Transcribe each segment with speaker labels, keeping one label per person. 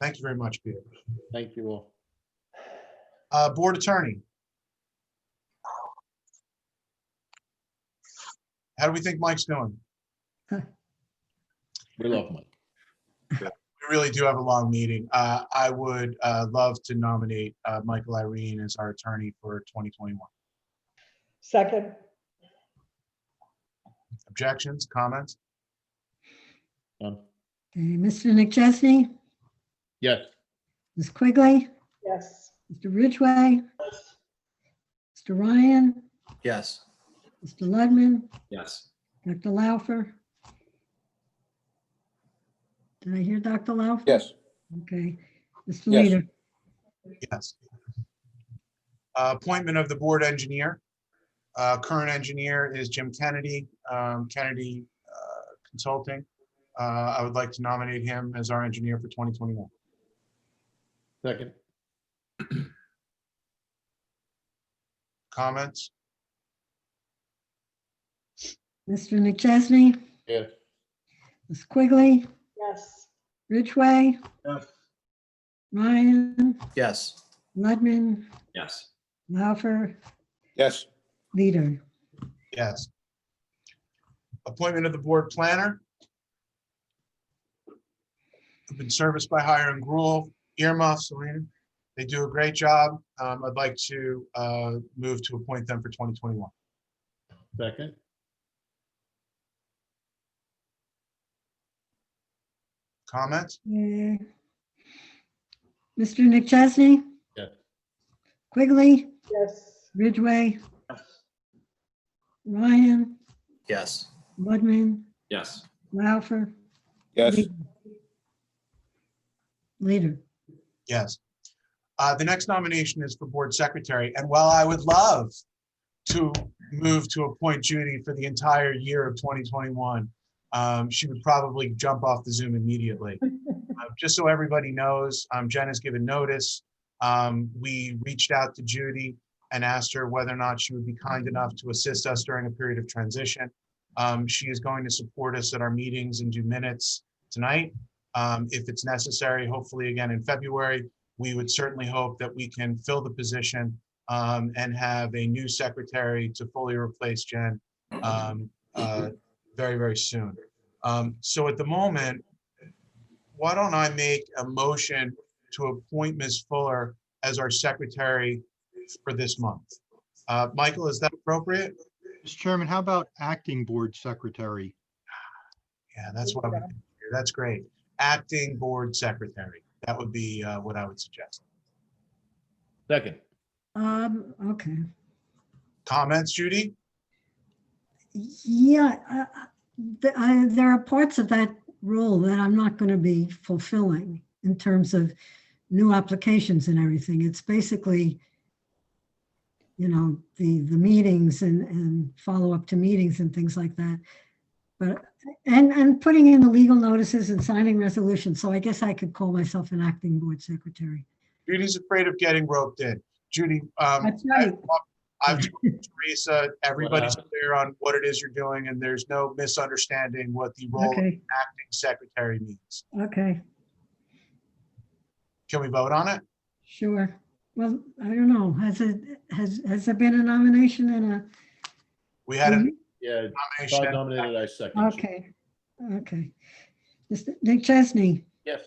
Speaker 1: Thank you very much, Peter.
Speaker 2: Thank you all.
Speaker 1: Uh, Board Attorney. How do we think Mike's doing?
Speaker 2: We love Mike.
Speaker 1: We really do have a long meeting. Uh, I would, uh, love to nominate, uh, Michael Irene as our attorney for 2021.
Speaker 3: Second,
Speaker 1: Objections, comments?
Speaker 2: Done.
Speaker 4: Okay, Mr. Nick Chesney,
Speaker 2: Yes,
Speaker 4: Ms. Quigley,
Speaker 3: yes.
Speaker 4: Mr. Ridgway, Mr. Ryan,
Speaker 5: Yes.
Speaker 4: Mr. Ludman,
Speaker 5: Yes.
Speaker 4: Dr. Laufer. Did I hear Dr. Laufer?
Speaker 6: Yes,
Speaker 4: Okay.
Speaker 6: Yes.
Speaker 4: Mr. Leader,
Speaker 1: Yes. Uh, Appointment of the Board Engineer. Uh, Current engineer is Jim Kennedy, um, Kennedy uh, Consulting. Uh, I would like to nominate him as our engineer for 2021.
Speaker 2: second.
Speaker 1: Comments?
Speaker 4: Mr. Nick Chesney,
Speaker 2: Yes,
Speaker 4: Ms. Quigley,
Speaker 3: Yes.
Speaker 4: Ridgway,
Speaker 5: Yes.
Speaker 4: Ryan,
Speaker 5: Yes.
Speaker 4: Ludman,
Speaker 5: Yes.
Speaker 4: Laufer,
Speaker 6: yes,
Speaker 4: Leader.
Speaker 1: Yes. Appointment of the board planner. I've Been serviced by Hire and Gruel, earmuff, Selena. They do a great job. Um, I'd like to, uh, move to appoint them for 2021.
Speaker 2: second.
Speaker 1: Comments?
Speaker 4: Yeah. Mr. Nick Chesney?
Speaker 2: Yes.
Speaker 4: Quigley,
Speaker 3: Yes.
Speaker 4: Ridgway, Ryan,
Speaker 5: Yes.
Speaker 4: Woodman,
Speaker 5: Yes.
Speaker 4: Laufer.
Speaker 6: yes,
Speaker 4: Leader. Leader.
Speaker 1: Yes. Uh, The next nomination is for board secretary, and while I would love to move to appoint Judy for the entire year of 2021, um, she would probably jump off the Zoom immediately. Uh, Just so everybody knows, um, Jen has given notice. Um, We reached out to Judy and asked her whether or not she would be kind enough to assist us during a period of transition. Um, She is going to support us at our meetings and do minutes tonight. Um, If it's necessary, hopefully again in February, we would certainly hope that we can fill the position um, and have a new secretary to fully replace Jen um, uh, very, very soon. Um, So at the moment, why don't I make a motion to appoint Ms. Fuller as our secretary for this month? Uh, Michael, is that appropriate?
Speaker 7: Mr. Chairman, how about acting board secretary?
Speaker 1: Yeah, that's what I'm, that's great. Acting board secretary, that would be uh, what I would suggest.
Speaker 2: Second.
Speaker 4: Um, okay.
Speaker 1: Comments, Judy?
Speaker 4: Yeah, uh, th- I- there are parts of that role that I'm not going to be fulfilling in terms of new applications and everything. It's basically, you know, the, the meetings and, and follow-up to meetings and things like that. But, and, and putting in the legal notices and signing resolutions. So I guess I could call myself an acting board secretary.
Speaker 1: Judy's afraid of getting roped in. Judy, um,
Speaker 4: That's right.
Speaker 1: I've talked to Teresa, everybody's
Speaker 2: Wow.
Speaker 1: clear on what it is you're doing, and there's no misunderstanding what the role of
Speaker 4: Okay,
Speaker 1: acting secretary means.
Speaker 4: okay,
Speaker 1: Can we vote on it?
Speaker 4: sure. Well, I don't know. Has it, has, has there been a nomination and a?
Speaker 1: We had
Speaker 4: Mm-hmm.
Speaker 1: a
Speaker 2: Yeah,
Speaker 1: nomination.
Speaker 2: Todd nominated, I second.
Speaker 4: Okay, okay. Mr. Nick Chesney,
Speaker 2: Yes,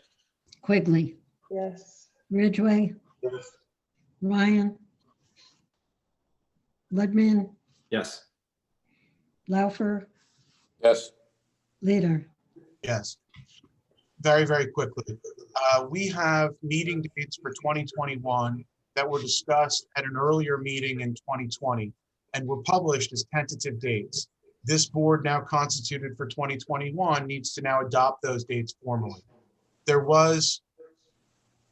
Speaker 4: Quigley,
Speaker 3: Yes.
Speaker 4: Ridgway, Ryan, Ludman,
Speaker 5: Yes.
Speaker 4: Laufer,
Speaker 6: yes,
Speaker 4: Leader.
Speaker 1: Yes. Very, very quickly. Uh, We have meeting dates for 2021 that were discussed at an earlier meeting in 2020 and were published as tentative dates. This board now constituted for 2021 needs to now adopt those dates formally. There was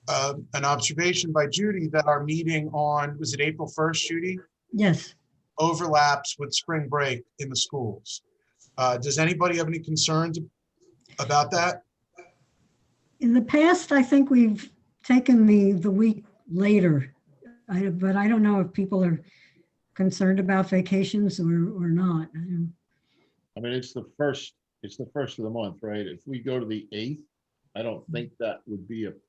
Speaker 1: uh, an observation by Judy that our meeting on, was it April 1st, Judy?
Speaker 4: Yes,
Speaker 1: Overlaps with spring break in the schools. Uh, Does anybody have any concerns about that?
Speaker 4: in the past, I think we've taken the, the week later. I, but I don't know if people are concerned about vacations or, or not. I don't-
Speaker 2: I mean, it's the first, it's the first of the month, right? If we go to the eighth, I don't think that would be a